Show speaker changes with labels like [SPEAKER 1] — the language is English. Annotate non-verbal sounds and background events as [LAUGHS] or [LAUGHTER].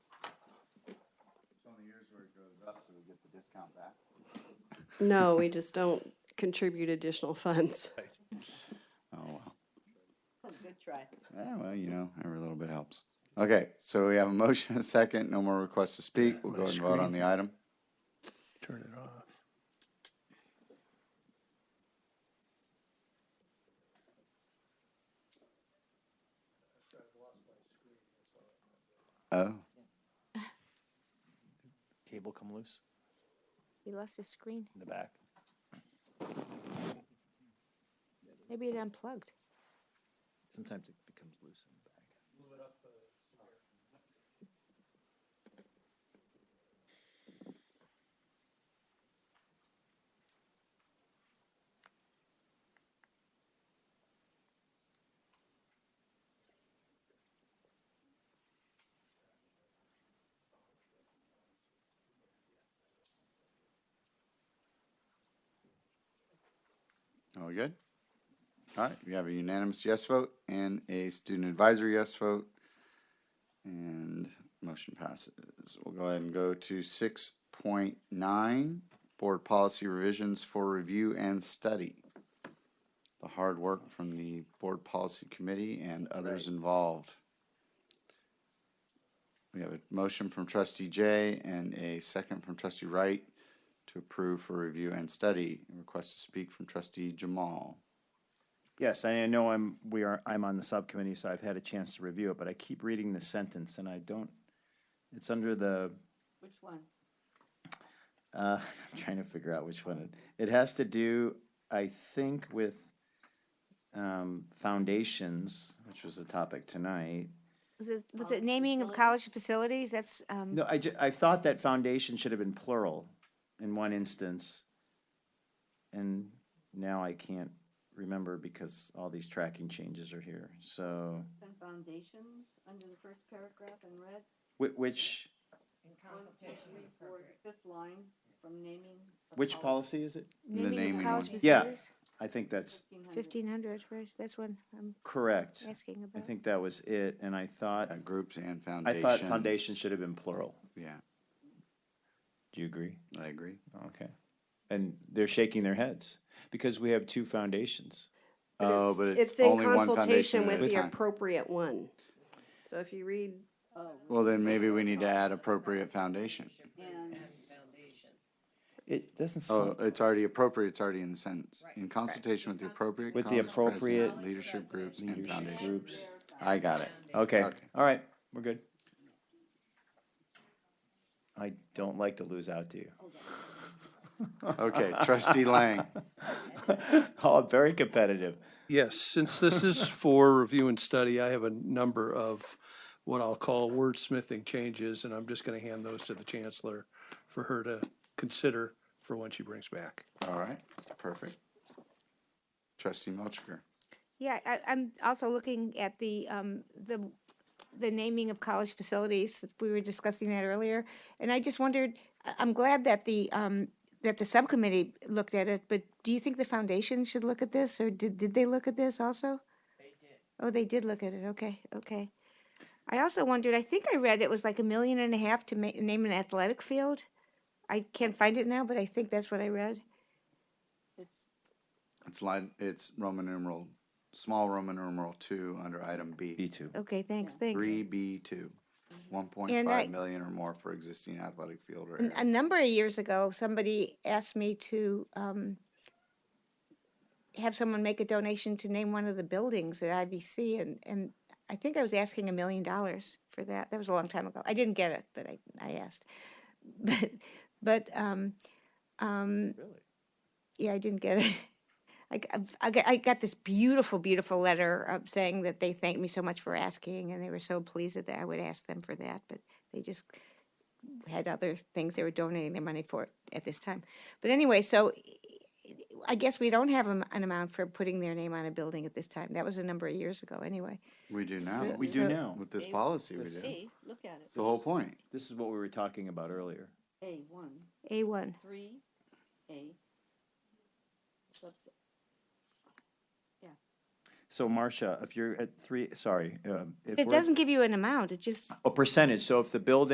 [SPEAKER 1] discount that.
[SPEAKER 2] No, we just don't contribute additional funds.
[SPEAKER 1] Oh, well.
[SPEAKER 3] Good try.
[SPEAKER 1] Yeah, well, you know, every little bit helps. Okay, so we have a motion, [LAUGHS] a second, no more requests to speak. We'll go
[SPEAKER 4] My
[SPEAKER 1] ahead and vote on the item.
[SPEAKER 4] Turn it off.
[SPEAKER 1] Oh,
[SPEAKER 5] Cable come loose
[SPEAKER 6] He lost his screen.
[SPEAKER 5] in the back.
[SPEAKER 6] Maybe it unplugged.
[SPEAKER 5] Sometimes it becomes loose in the back.
[SPEAKER 1] are we good? All right, we have a unanimous yes vote and a student advisory yes vote. And motion passes. We'll go ahead and go to six point nine, board policy revisions for review and study. The hard work from the board policy committee and others involved. We have a motion from trustee Jay and a second from trustee Wright to approve for review and study. Request to speak from trustee Jamal.
[SPEAKER 7] Yes, I know I'm, we are, I'm on the subcommittee, so I've had a chance to review it, but I keep reading the sentence and I don't, it's under the,
[SPEAKER 3] Which one?
[SPEAKER 7] uh, [LAUGHS] I'm trying to figure out which one. It it has to do, I think, with um, foundations, which was the topic tonight.
[SPEAKER 6] Was it, was it naming of college facilities? That's, um,
[SPEAKER 7] No, I ju- I thought that foundation should have been plural in one instance. And now I can't remember because all these tracking changes are here, so.
[SPEAKER 3] Some foundations under the first paragraph in red.
[SPEAKER 7] Whi- Which,
[SPEAKER 3] One, two, three, four, fifth line from naming. of
[SPEAKER 7] which
[SPEAKER 3] college-
[SPEAKER 7] policy is it?
[SPEAKER 6] naming
[SPEAKER 1] naming
[SPEAKER 6] of college
[SPEAKER 1] one.
[SPEAKER 7] Yeah.
[SPEAKER 6] facilities?
[SPEAKER 7] I think that's
[SPEAKER 3] 1500.
[SPEAKER 6] Fifteen hundred, right? That's what I'm
[SPEAKER 7] correct.
[SPEAKER 6] asking
[SPEAKER 7] I
[SPEAKER 6] about.
[SPEAKER 7] think that was it, and I thought,
[SPEAKER 1] Uh, groups and
[SPEAKER 7] I
[SPEAKER 1] foundations.
[SPEAKER 7] thought foundation should have been plural.
[SPEAKER 1] Yeah,
[SPEAKER 7] Do you agree?
[SPEAKER 1] I agree.
[SPEAKER 7] Okay. And they're shaking their heads because we have two foundations.
[SPEAKER 1] Oh, but it's
[SPEAKER 2] in
[SPEAKER 1] only one foundation
[SPEAKER 2] consultation
[SPEAKER 1] at
[SPEAKER 2] with
[SPEAKER 1] a
[SPEAKER 2] the
[SPEAKER 1] time.
[SPEAKER 2] appropriate one. So if you read,
[SPEAKER 3] Oh,
[SPEAKER 1] Well, then maybe we need to add appropriate foundation.
[SPEAKER 3] and
[SPEAKER 7] It doesn't
[SPEAKER 1] Oh,
[SPEAKER 7] sound,
[SPEAKER 1] it's already appropriate, it's already in the sentence. In consultation with the appropriate.
[SPEAKER 7] With the
[SPEAKER 1] college president,
[SPEAKER 7] appropriate
[SPEAKER 1] Leadership groups and
[SPEAKER 7] leadership
[SPEAKER 1] foundation.
[SPEAKER 7] groups.
[SPEAKER 1] I
[SPEAKER 7] [LAUGHS]
[SPEAKER 1] got it.
[SPEAKER 7] Okay,
[SPEAKER 1] Okay.
[SPEAKER 7] all right, we're good. I don't like to lose out to you.
[SPEAKER 1] Okay, trustee Lang.
[SPEAKER 7] [LAUGHS] Oh, very competitive.
[SPEAKER 4] Yes, since this is for review and study, I have a number of what I'll call wordsmithing changes, and I'm just going to hand those to the chancellor for her to consider for when she brings back.
[SPEAKER 1] All right, perfect. Trustee Melchiker.
[SPEAKER 6] Yeah, I, I'm also looking at the, um, the, the naming of college facilities. We were discussing that earlier. And I just wondered, I- I'm glad that the, um, that the subcommittee looked at it, but do you think the foundation should look at this or did, did they look at this also? They did. Oh, they did look at it. Okay, okay. I also wondered, I think I read it was like a million and a half to ma- name an athletic field. I can't find it now, but I think that's what I read.
[SPEAKER 3] it's
[SPEAKER 1] It's line, it's Roman numeral, small Roman numeral two under item
[SPEAKER 7] B
[SPEAKER 1] B.
[SPEAKER 7] two.
[SPEAKER 6] Okay, thanks, thanks.
[SPEAKER 1] Three B two. One point
[SPEAKER 6] And I-
[SPEAKER 1] five million or more for existing athletic field or.
[SPEAKER 6] N-
[SPEAKER 1] area.
[SPEAKER 6] A number of years ago, somebody asked me to um, have someone make a donation to name one of the buildings at IBC, and, and I think I was asking a million dollars for that. That was a long time ago. I didn't get it, but I, I asked. [LAUGHS] But, but, um, um,
[SPEAKER 7] Really?
[SPEAKER 6] yeah, I didn't get it. I, g- I've- I, g- I got this beautiful, beautiful letter of saying that they thanked me so much for asking, and they were so pleased that I would ask them for that, but they just had other things they were donating their money for at this time. But anyway, so I guess we don't have an an amount for putting their name on a building at this time. That was a number of years ago, anyway.
[SPEAKER 1] We do
[SPEAKER 6] So-
[SPEAKER 1] now.
[SPEAKER 7] We do
[SPEAKER 6] So-
[SPEAKER 7] now.
[SPEAKER 1] With this
[SPEAKER 3] A-
[SPEAKER 1] policy, we
[SPEAKER 7] this-
[SPEAKER 1] do.
[SPEAKER 3] A, look at
[SPEAKER 1] It's
[SPEAKER 3] it.
[SPEAKER 1] the whole point.
[SPEAKER 7] This is what we were talking about earlier.
[SPEAKER 3] A, one,
[SPEAKER 6] A1.
[SPEAKER 3] three, A. Subs-
[SPEAKER 7] So Marcia, if you're at three, sorry, um, if
[SPEAKER 6] It
[SPEAKER 7] we're at-
[SPEAKER 6] doesn't give you an amount, it just
[SPEAKER 7] a percentage. So if the building